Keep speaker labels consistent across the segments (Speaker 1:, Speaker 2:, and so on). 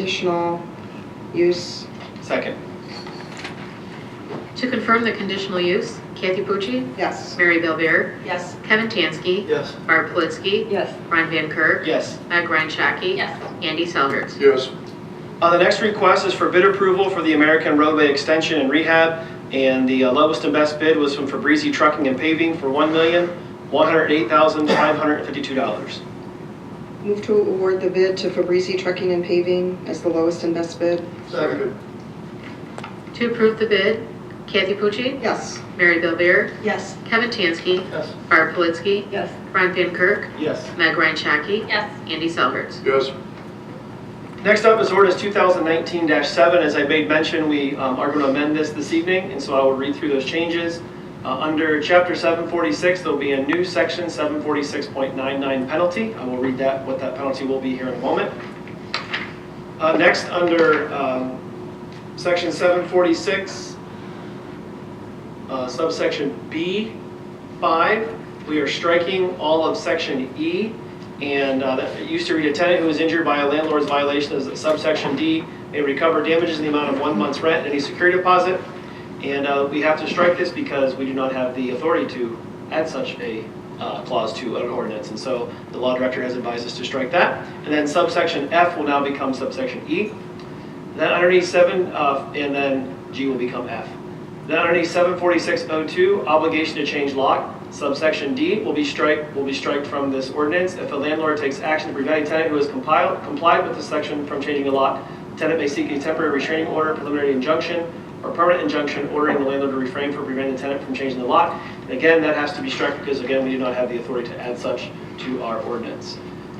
Speaker 1: conditional use.
Speaker 2: Second.
Speaker 3: To confirm the conditional use, Kathy Pucci,
Speaker 1: Yes.
Speaker 3: Mary Belvair,
Speaker 4: Yes.
Speaker 3: Kevin Tansky,
Speaker 2: Yes.
Speaker 3: Barb Politzky,
Speaker 4: Yes.
Speaker 3: Ron Van Kirk,
Speaker 2: Yes.
Speaker 3: Meg Ryan Shaki,
Speaker 4: Yes.
Speaker 3: Andy Selhertz.
Speaker 5: Yes.
Speaker 2: Uh, the next request is for bid approval for the American Roadway Extension and Rehab, and the uh, lowest and best bid was from Fabrizi Trucking and Paving for one million, one hundred eight thousand, five hundred and fifty-two dollars.
Speaker 1: Move to award the bid to Fabrizi Trucking and Paving as the lowest and best bid.
Speaker 5: Second.
Speaker 3: To approve the bid, Kathy Pucci,
Speaker 1: Yes.
Speaker 3: Mary Belvair,
Speaker 4: Yes.
Speaker 3: Kevin Tansky,
Speaker 2: Yes.
Speaker 3: Barb Politzky,
Speaker 4: Yes.
Speaker 3: Ron Van Kirk,
Speaker 2: Yes.
Speaker 3: Meg Ryan Shaki,
Speaker 4: Yes.
Speaker 3: Andy Selhertz.
Speaker 5: Yes.
Speaker 2: Next up is ordinance two thousand nineteen seven. As I made mention, we um, are going to amend this this evening, and so I will read through those changes. Uh, Under chapter seven forty-six, there'll be a new section, seven forty-six point nine nine penalty. I will read that, what that penalty will be here in a moment. Uh, Next, under um, section 746, uh, subsection B5, we are striking all of section E. And uh, that it used to read, a tenant who is injured by a landlord's violation of subsection D may recover damages in the amount of one month's rent and any security deposit. And uh, we have to strike this because we do not have the authority to add such a uh, clause to an ordinance. And so the law director has advised us to strike that. And then subsection F will now become subsection E. Then underneath seven, uh, and then G will become F. Then underneath seven forty-six oh two, obligation to change lock, subsection D will be strike, will be striked from this ordinance. If a landlord takes action to prevent a tenant who has compiled, complied with the section from changing a lock, the tenant may seek a temporary restraining order, preliminary injunction, or permanent injunction ordering the landlord to refrain from preventing the tenant from changing the lock. And again, that has to be struck because again, we do not have the authority to add such to our ordinance.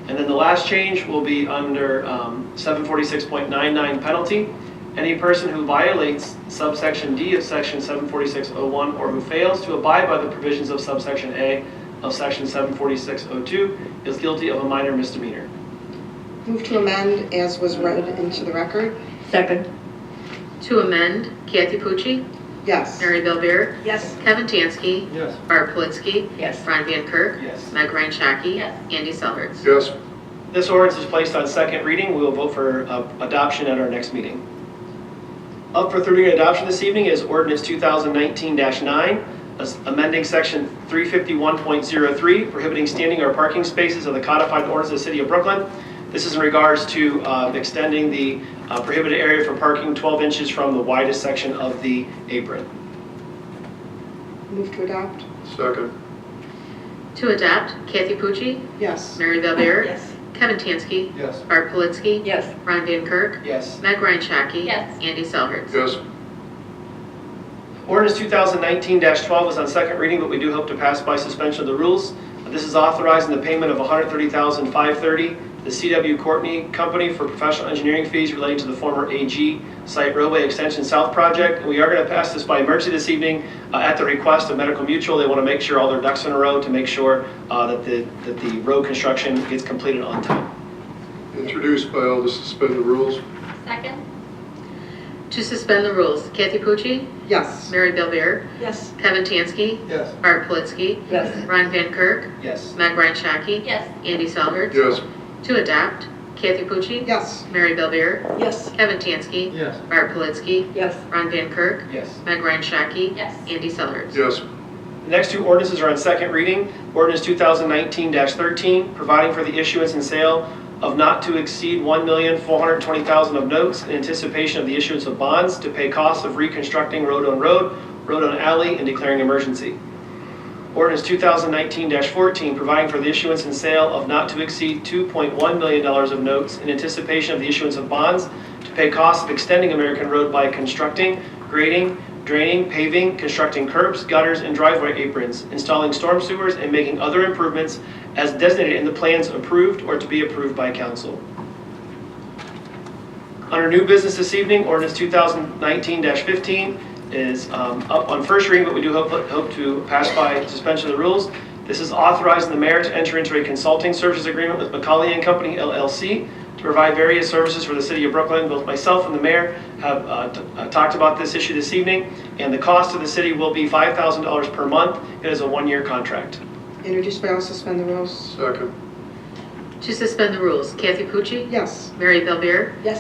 Speaker 2: And then the last change will be under um, 746.99 penalty. Any person who violates subsection D of section 746.01 or who fails to abide by the provisions of subsection A of section 746.02 is guilty of a minor misdemeanor.
Speaker 1: Move to amend as was read into the record.
Speaker 4: Second.
Speaker 3: To amend, Kathy Pucci,
Speaker 1: Yes.
Speaker 3: Mary Belvair,
Speaker 4: Yes.
Speaker 3: Kevin Tansky,
Speaker 2: Yes.
Speaker 3: Barb Politzky,
Speaker 4: Yes.
Speaker 3: Ron Van Kirk,
Speaker 2: Yes.
Speaker 3: Meg Ryan Shaki,
Speaker 4: Yes.
Speaker 3: Andy Selhertz.
Speaker 5: Yes.
Speaker 2: This ordinance is placed on second reading. We will vote for uh, adoption at our next meeting. Up for third reading and adoption this evening is ordinance 2019-9, as- amending section 351.03, prohibiting standing or parking spaces of the codified ordinance of the city of Brooklyn. This is in regards to uh, extending the uh, prohibited area for parking 12 inches from the widest section of the apron.
Speaker 1: Move to adopt.
Speaker 5: Second.
Speaker 3: To adopt, Kathy Pucci,
Speaker 1: Yes.
Speaker 3: Mary Belvair,
Speaker 4: Yes.
Speaker 3: Kevin Tansky,
Speaker 2: Yes.
Speaker 3: Barb Politzky,
Speaker 4: Yes.
Speaker 3: Ron Van Kirk,
Speaker 2: Yes.
Speaker 3: Meg Ryan Shaki.
Speaker 4: Yes.
Speaker 3: Andy Selhertz.
Speaker 5: Yes.
Speaker 2: Ordinance 2019-12 is on second reading, but we do hope to pass by suspension of the rules. This is authorizing the payment of $130,530, the CW Courtney Company for professional engineering fees relating to the former AG Site Roadway Extension South project. And We are going to pass this by emergency this evening uh, at the request of Medical Mutual. They want to make sure all their ducks in a row to make sure uh, that the, that the road construction gets completed on time.
Speaker 5: Introduced by all to suspend the rules.
Speaker 4: Second.
Speaker 3: To suspend the rules, Kathy Pucci,
Speaker 1: Yes.
Speaker 3: Mary Belvair,
Speaker 4: Yes.
Speaker 3: Kevin Tansky,
Speaker 2: Yes.
Speaker 3: Barb Politzky,
Speaker 4: Yes.
Speaker 3: Ron Van Kirk,
Speaker 2: Yes.
Speaker 3: Meg Ryan Shaki,
Speaker 4: Yes.
Speaker 3: Andy Selhertz.
Speaker 5: Yes.
Speaker 3: To adopt, Kathy Pucci,
Speaker 1: Yes.
Speaker 3: Mary Belvair,
Speaker 4: Yes.
Speaker 3: Kevin Tansky,
Speaker 2: Yes.
Speaker 3: Barb Politzky,
Speaker 4: Yes.
Speaker 3: Ron Van Kirk,
Speaker 2: Yes.
Speaker 3: Meg Ryan Shaki,
Speaker 4: Yes.
Speaker 3: Andy Selhertz.
Speaker 5: Yes.
Speaker 2: The next two ordinances are on second reading. Ordinance 2019-13, providing for the issuance and sale of not to exceed $1,420,000 of notes in anticipation of the issuance of bonds to pay costs of reconstructing road on road, road on alley, and declaring emergency. Ordinance 2019-14, providing for the issuance and sale of not to exceed $2.1 million of notes in anticipation of the issuance of bonds to pay costs of extending American Road by constructing, grading, draining, paving, constructing curbs, gutters, and driveway aprons, installing storm sewers, and making other improvements as designated in the plans approved or to be approved by council. Under new business this evening, ordinance 2019-15 is um, up on first reading, but we do hope hope to pass by suspension of the rules. This is authorizing the mayor to enter into a consulting services agreement with McCauley and Company LLC to provide various services for the city of Brooklyn. Both myself and the mayor have uh, t- uh, talked about this issue this evening, and the cost to the city will be $5,000 per month. It is a one-year contract.
Speaker 1: Introduced by all, suspend the rules.
Speaker 5: Second.
Speaker 3: To suspend the rules, Kathy Pucci?
Speaker 1: Yes.
Speaker 3: Mary Bellbeer?
Speaker 1: Yes.